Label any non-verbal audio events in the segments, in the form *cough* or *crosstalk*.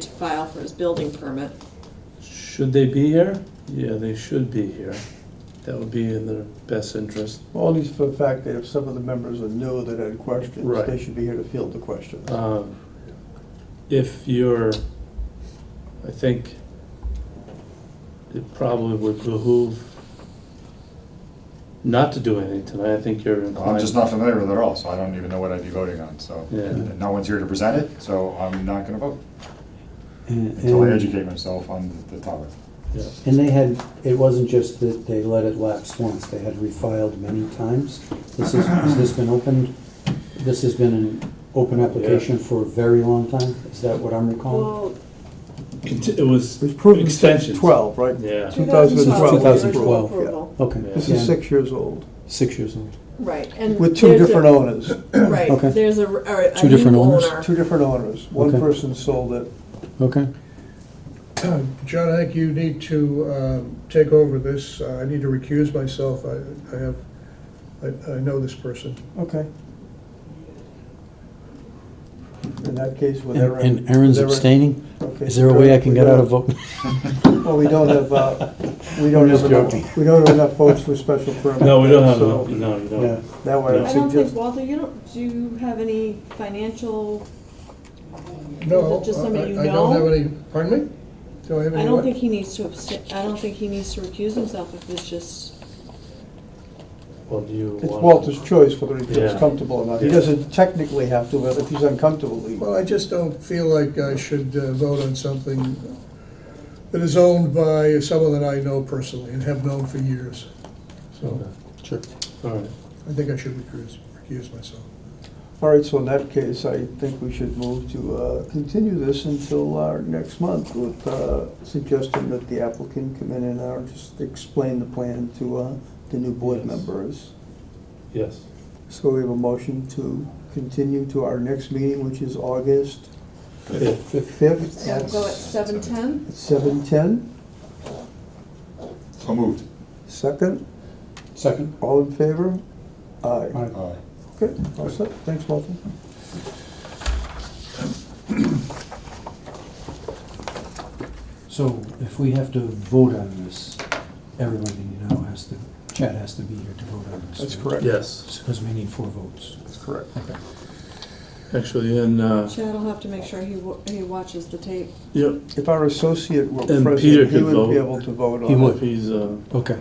to file for his building permit. Should they be here? Yeah, they should be here. That would be in their best interest. Only for the fact that if some of the members are new that had questions, Right. they should be here to field the questions. Um, If you're, I think it probably would behoove not to do anything tonight. I think you're Well, inclined. I'm just not familiar with it at all, so I don't even know what I'd be voting on, so. Yeah. and No one's here to present it, so I'm not gonna vote until I And educate myself on the- the topic. Yeah. and they had, it wasn't just that they let it lapse once, they had refiled many times. This is, has this been opened? This has been an open application for a very long time? Is that what Um, I'm recalling? Well, It it was It was proven since extensions. 12, right? Yeah. 2012. 2012, yeah. approval. Okay, This yeah, is six years old, six years old. Right, and. with two there's a- different owners, Right, Okay. there's a, or a Two new different owners? owner. two different owners. One Okay. person sold it. Okay, John, I think you need to um, take over this. Uh, I need to recuse myself. I I have, I- I know this person. Okay. In that case, with and Aaron. and Aaron's with Aaron- abstaining? okay, Is there a way I can we get don't- out of vote? Well, we don't have, uh, we don't I'm just have enough, joking. we don't have enough votes for special permit. No, we don't have, so a- no, you Yeah. don't. That way, I I don't think, suggest, Walter, you don't, do you have any financial, No, Is it just I- somebody you I don't know? have any, pardon me? Do I have any? I don't what? think he needs to abstain, I don't think he needs to recuse himself if it's just, Well, do you want? it's Walter's choice whether he Yeah. feels comfortable or not. He Yeah. doesn't technically have to, but if he's uncomfortable, he. Well, I just don't feel like I should uh, vote on something that is owned by someone that I know personally and have known for years. So Okay. Sure. All right. I think I should recuse, recuse myself. All right, so in that case, I think we should move to uh, continue this until our next month with uh, suggesting that the applicant come in and uh, just explain the plan to uh, the new board Yes. members. Yes. So we have a motion to continue to our next meeting, which is August Yeah. the 5th so we'll go at at seven ten? 7:10. So moved. Second, Second? all in favor? Aye. Aye. Aye. Okay, all set. Thanks, Walter. So if we have to vote on this, everybody now has to, Chad has to be here to vote on this. right? Yes, Because we need four votes. That's correct. actually, and, uh, Chad will have to make sure he, wa- he watches the tape. yep, If our associate were And Peter present, he could would vote. be able to vote on it. He would. if he's, uh, Okay.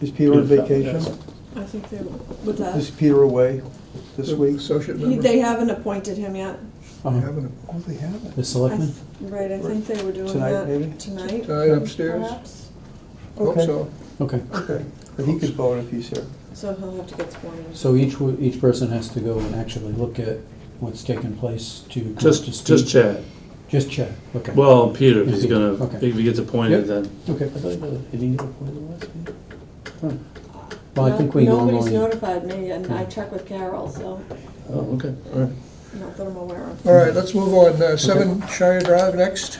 Is Peter on Peter, vacation? yes. I think they, with that, Is Peter away this The week? Associate he, member. they haven't appointed him yet. I Uh, have an- Oh, they haven't. The I selectmen? th- Right, I think they were doing Tonight, maybe? that tonight, Tonight upstairs? perhaps. Hope Okay. so. Okay. Okay, but he could vote if he's here. So he'll have to get sworn in. So each, wo- each person has to go and actually look at what's taken place to. come up to just, speed? just Chad. Just Chad, okay. Well, Peter, if he's Peter, gonna, okay. if he gets appointed, Yep. then. Okay. I thought he didn't get appointed last week. Well, I No- think we Nobody's normally, notified me, and I Yeah. checked with Carol, so Oh, okay, all right. not that I'm aware of. All right, let's move on. Uh, Seven Shire Drive next.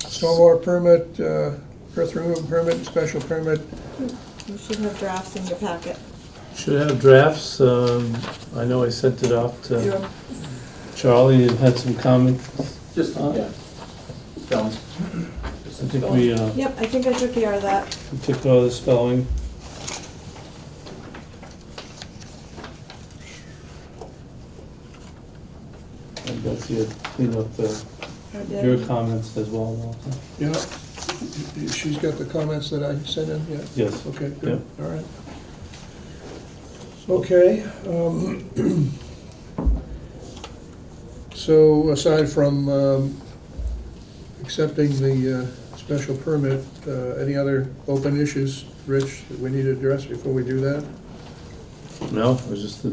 Stormwater permit, uh, earth removal permit, special permit. You should have drafts in your packet. Should have drafts, um, I know I sent it off to Your- Charlie, and had some comments. Just, Uh, yeah. Spelling. I think we, uh, Yep, I think I took care of that. we took all the spelling. And Betsy had cleaned up the, I your did. comments as well, Walter. Yeah, she's got the comments that I sent in, yeah, Yes, okay, good, all right. Okay, um, *clears throat* so aside from um, accepting the uh, special permit, uh, any other open issues, Rich, that we need to address before we do that? no, it was just the,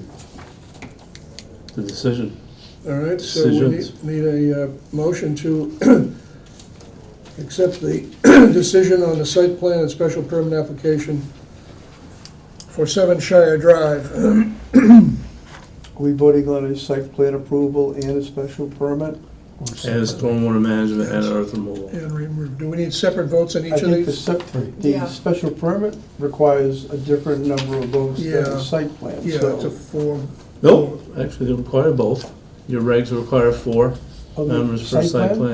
the decision. All right, so we Decisions. need- need a uh, motion to *clears throat* accept the *clears throat* decision on the site plan and special permit application for Seven Shire Drive. *clears throat* Are we voting on a site plan approval and a special permit? And stormwater management and earth removal. And remove- Do we need separate votes on I each of think the these? sep, Yeah. the special permit requires a different number of votes than Yeah. the site plan, Yeah, it's so. a form. No, actually, they require both. Your regs require four, of the members for site plan.